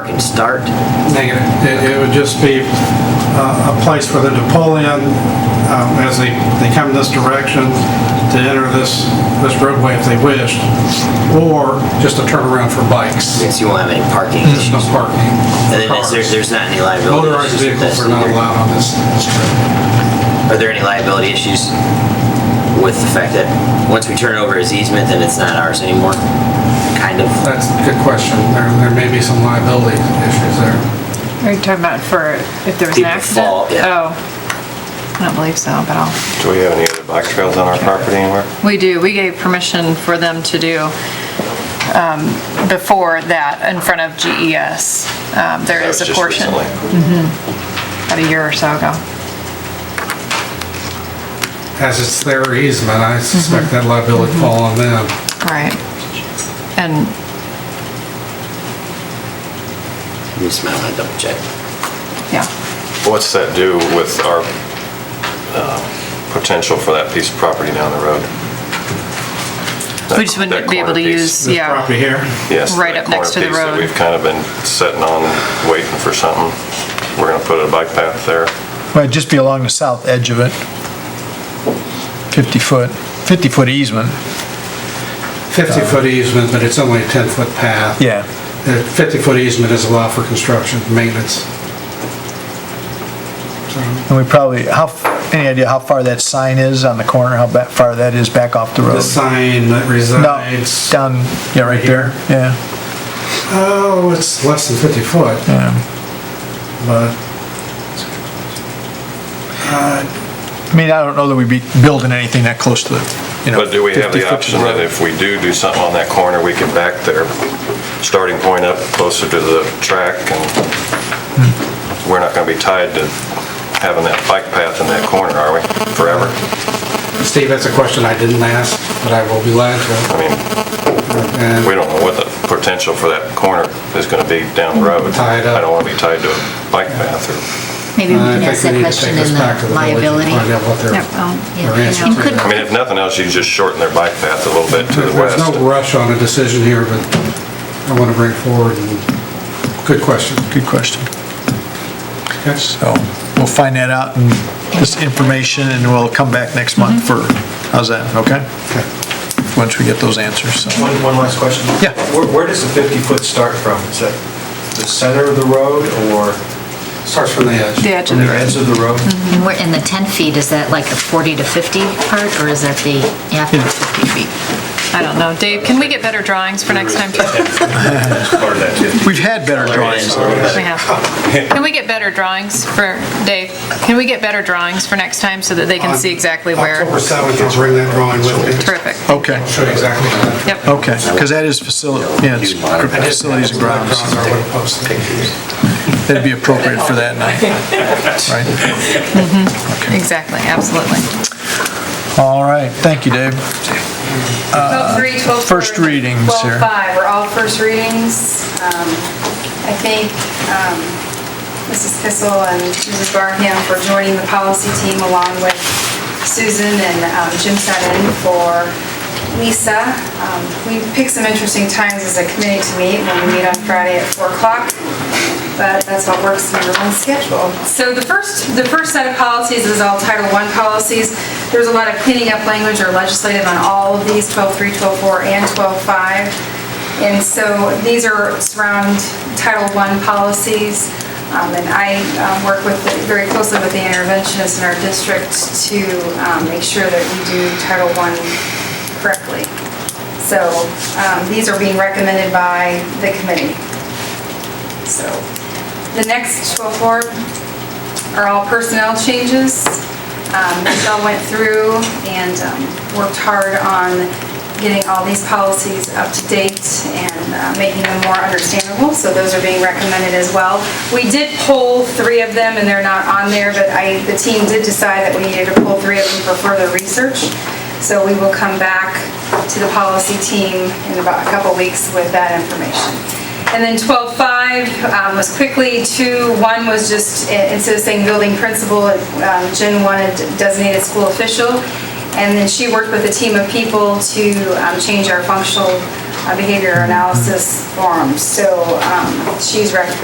start? Negative. It, it would just be uh, a place for them to pull in um, as they, they come this direction to enter this, this roadway if they wished, or just a turnaround for bikes. Since you won't have any parking There's issues. no parking. And then is there, Hmm. Cars. there's not any liability Motorized issues with vehicles this are not either? allowed on this this trip. Are there any liability issues with the fact that once we turn it over as easement, then it's not ours anymore? Kind of. That's a good question. There, there may be some liability issues there. Are you talking about for if there was an People accident? fall, yeah. Oh, I don't believe so, but I'll, Do we have any other bike trails on our property anywhere? we do, we gave permission for them to do um, before that in front of GES. Um, There That is was a just portion, recently. about a year or so ago. As it's their easement, I suspect that liability would fall on them. Right. And Just might want to double check. Yeah, What's that do with our uh, potential for that piece of property down the road? we just wouldn't That be able to corner use, piece. This yeah. property here, Yes, right that up next corner to the piece that road. We've kind of been sitting on, waiting for something. We're going to put a bike path there. Well, it'd just be along the south edge of it. 50-foot, 50-foot easement, 50-foot easement, but it's only a 10-foot path. yeah. The 50-foot easement is allowed for construction, maintenance. And we probably, how, f- any idea how far that sign is on the corner, how ba- far that is back off the The road? sign that No, resides, down, yeah, right there, yeah, oh, it's less than 50 foot, yeah. but I mean, I don't know that we'd be building anything that close to the, you know. But do we have 50 foot the to option that road. if we do do something on that corner, we can back their starting point up closer to the track and we're not going to be tied to having that bike path in that corner, are we, forever? Steve, that's a question I didn't ask, but I will be glad to. I mean, we And don't know what the potential for that corner is going to be down the road. Tied up. I don't want to be tied to a bike path or, Maybe we Uh, I can think ask we that need to take question in this back to the the village and Find liability. out what their, Yep, I'll- their yeah, answer you to could- that. I mean, if nothing else, you just shorten their bike path a little bit to the There's no west. rush on a decision here, but I want to bring forward, and good question. Good question. Okay. So we'll find that out and this information and we'll come back next month for, how's that, okay? Okay. Once we get those answers, so. One, one last question. Yeah. Where, where does the 50-foot start from? Is that the center of the road or Starts from the edge. The edge from of the the road. edge of the road? And we're in the 10 feet, is that like a 40 to 50 part, or is that the after 50 feet? I don't know. Dave, can we get better drawings for next time? too? We've had better drawings. We have. Can we get better drawings for, Dave, can we get better drawings for next time so that they can see exactly October where? 7th, I'll bring that drawing with me. Terrific. Okay, Show you exactly. how that- Yep. okay, because that is facility, yeah, it's facilities and grounds. I would have posted it. That'd be appropriate for that night, right? Exactly, absolutely. All right, thank you, Dave. 12-3, 12-4, Uh, first readings here. 12-5 are all first readings. Um, I thank um, Mrs. Kissel and Mrs. Barham for joining the policy team along with Susan and um, Jim Sutton for Lisa. Um, We picked some interesting times as a committee to meet when we meet on Friday at 4 o'clock but that's what works in your own schedule. So the first, the first set of policies is all Title I policies. There's a lot of cleaning up language or legislative on all of these, 12.3, 12.4, and 12.5. And so these are surround Title I policies. Um, And I um, work with, very closely with the interventionists in our district to um, make sure that we do Title I correctly. So um, these are being recommended by the committee. So, the next 12 are all personnel changes. Um, Michelle went through and um, worked hard on getting all these policies up to date and uh, making them more understandable, so those are being recommended as well. We did pull three of them, and they're not on there, but I, the team did decide that we needed to pull three of them for further research. So we will come back to the policy team in about a couple weeks with that information. And then 12.5 um, was quickly, two, one was just, i- instead of saying building principal, um, Jen wanted designated school official. And then she worked with a team of people to um, change our functional uh, behavior analysis forms. So um, she's rec-